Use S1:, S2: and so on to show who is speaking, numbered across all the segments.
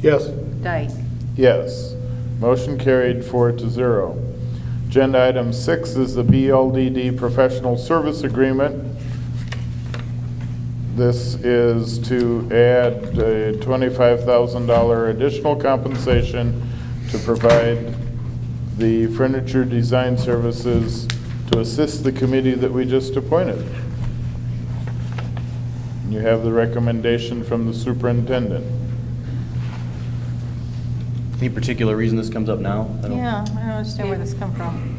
S1: Yes.
S2: Dyke.
S3: Yes. Motion carried four to zero. Agenda item six is the BLDD Professional Service Agreement. This is to add a $25,000 additional compensation to provide the furniture design services to assist the committee that we just appointed. You have the recommendation from the superintendent.
S4: Any particular reason this comes up now? I don't-
S2: Yeah, I don't understand where this come from.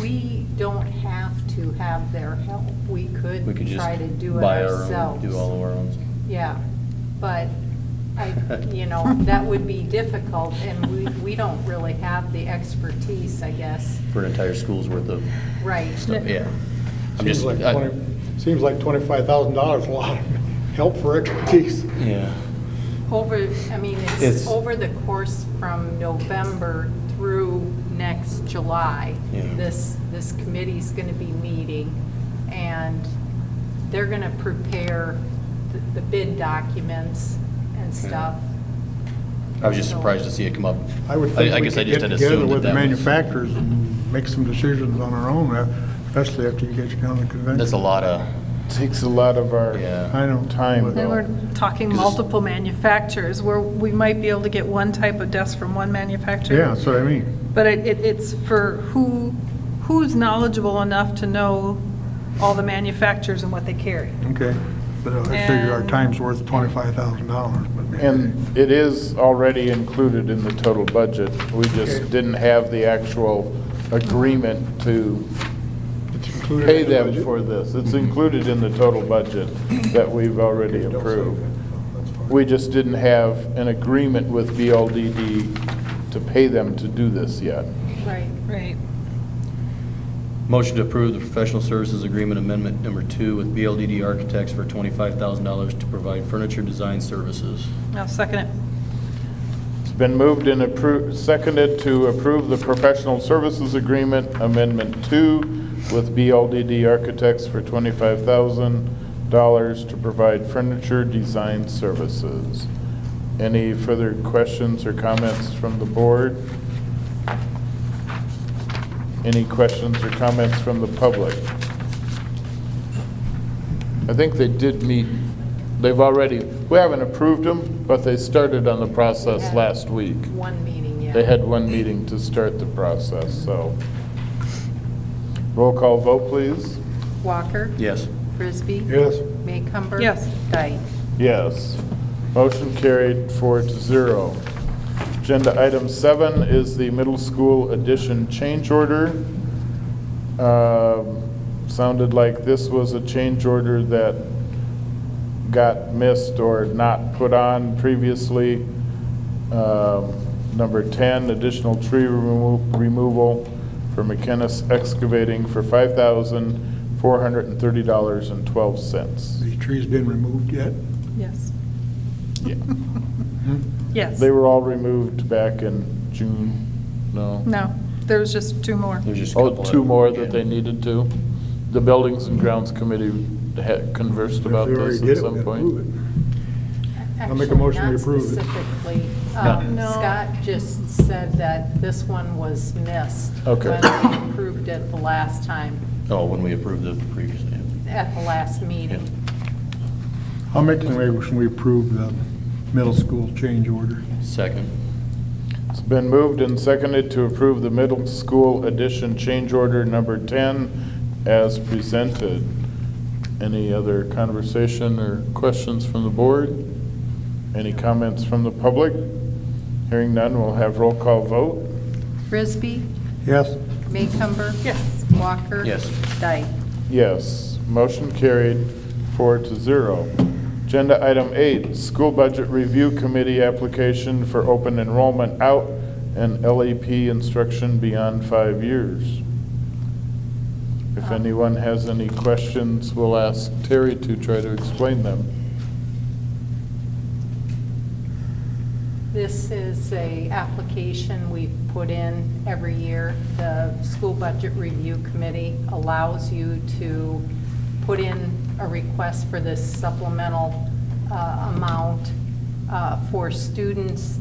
S5: We don't have to have their help. We could
S4: We could just
S5: try to do it
S4: buy our own,
S5: ourselves.
S4: do all of our own.
S5: Yeah, but I, you know, that would be difficult, and we, we don't really have the expertise, I guess.
S4: For an entire school's worth of
S5: Right.
S4: stuff, yeah. I'm
S1: Seems
S4: just,
S1: like
S4: I-
S1: 20, seems like $25,000, a lot of help for expertise.
S4: yeah.
S5: Over, I mean,
S4: It's-
S5: it's over the course from November through next July.
S4: Yeah.
S5: This, this committee's going to be meeting, and they're going to prepare the- the bid documents and stuff.
S4: I was just surprised to see it come up.
S1: I would think we
S4: guess I
S1: could get
S4: just had
S1: together
S4: assumed that
S1: with the
S4: that was-
S1: manufacturers and make some decisions on our own, uh, especially after you get down to the convention.
S4: That's a lot of,
S3: Takes a lot of our
S4: Yeah.
S1: I know.
S3: time,
S2: And
S3: though.
S2: we're talking multiple manufacturers, where we might be able to get one type of desk from one manufacturer.
S1: Yeah, that's what I mean.
S2: But it, it- it's for who, who's knowledgeable enough to know all the manufacturers and what they carry.
S1: Okay. But uh, I figure our
S2: And-
S1: time's worth $25,000, but maybe.
S3: And it is already included in the total budget. We
S1: Okay.
S3: just didn't have the actual agreement to
S1: It's included
S3: pay
S1: in the
S3: them
S1: budget?
S3: for this. It's included in the total budget that we've already
S1: Don't say
S3: approved.
S1: that. That's fine.
S3: We just didn't have an agreement with BLDD to pay them to do this yet.
S5: Right.
S2: Right.
S4: motion to approve the professional services agreement amendment number two with BLDD Architects for $25,000 to provide furniture design services.
S2: I'll second it.
S3: It's been moved and appro- seconded to approve the professional services agreement amendment two with BLDD Architects for twenty-five thousand dollars to provide furniture design services. Any further questions or comments from the board? Any questions or comments from the public? I think they did meet, they've already, we haven't approved them, but they started on the process
S5: Yeah.
S3: last week.
S5: One meeting, yeah.
S3: They had one meeting to start the process, so. Roll call vote, please.
S5: Walker.
S4: Yes.
S5: Frisbee.
S1: Yes.
S5: Maycumber.
S2: Yes.
S5: Dyke.
S3: Yes. Motion carried four to zero. Agenda item seven is the middle school addition change order. Um, Sounded like this was a change order that got missed or not put on previously. Um, Number 10, additional tree remo- removal for McKennis Excavating for $5,430.12.
S1: The tree's been removed yet?
S2: Yes.
S3: Yeah. Hmm?
S2: Yes.
S3: They were all removed back in June, no?
S2: No, there was just two more.
S4: There's just a
S3: Oh,
S4: couple
S3: two
S4: of-
S3: more that
S4: yeah.
S3: they needed to? The Buildings and Grounds Committee had conversed about
S1: If we already
S3: this
S1: did
S3: at
S1: it, we
S3: some
S1: gotta
S3: point.
S1: move it.
S5: I'll
S1: I'll make a motion to approve it.
S5: Not specifically.
S3: No.
S5: Um,
S2: No.
S5: Scott just said that this one was missed.
S3: Okay.
S5: When we approved it the last time,
S4: Oh, when we approved the previous, yeah.
S5: at the last meeting.
S1: I'll make the motion, we approve the middle school change order.
S4: second.
S3: It's been moved and seconded to approve the middle school addition change order number 10 as presented. Any other conversation or questions from the board? Any comments from the public? Hearing none, we'll have roll call vote.
S5: Frisbee,
S1: Yes?
S5: Maycumber.
S2: Yes.
S5: Walker.
S4: Yes.
S5: Dyke.
S3: Yes, motion carried four to zero. Agenda item eight, School Budget Review Committee application for open enrollment out and LEP instruction beyond five years. If anyone has any questions, we'll ask Terry to try to explain them.
S5: This is a application we put in every year. The School Budget Review Committee allows you to put in a request for this supplemental uh, amount uh, for students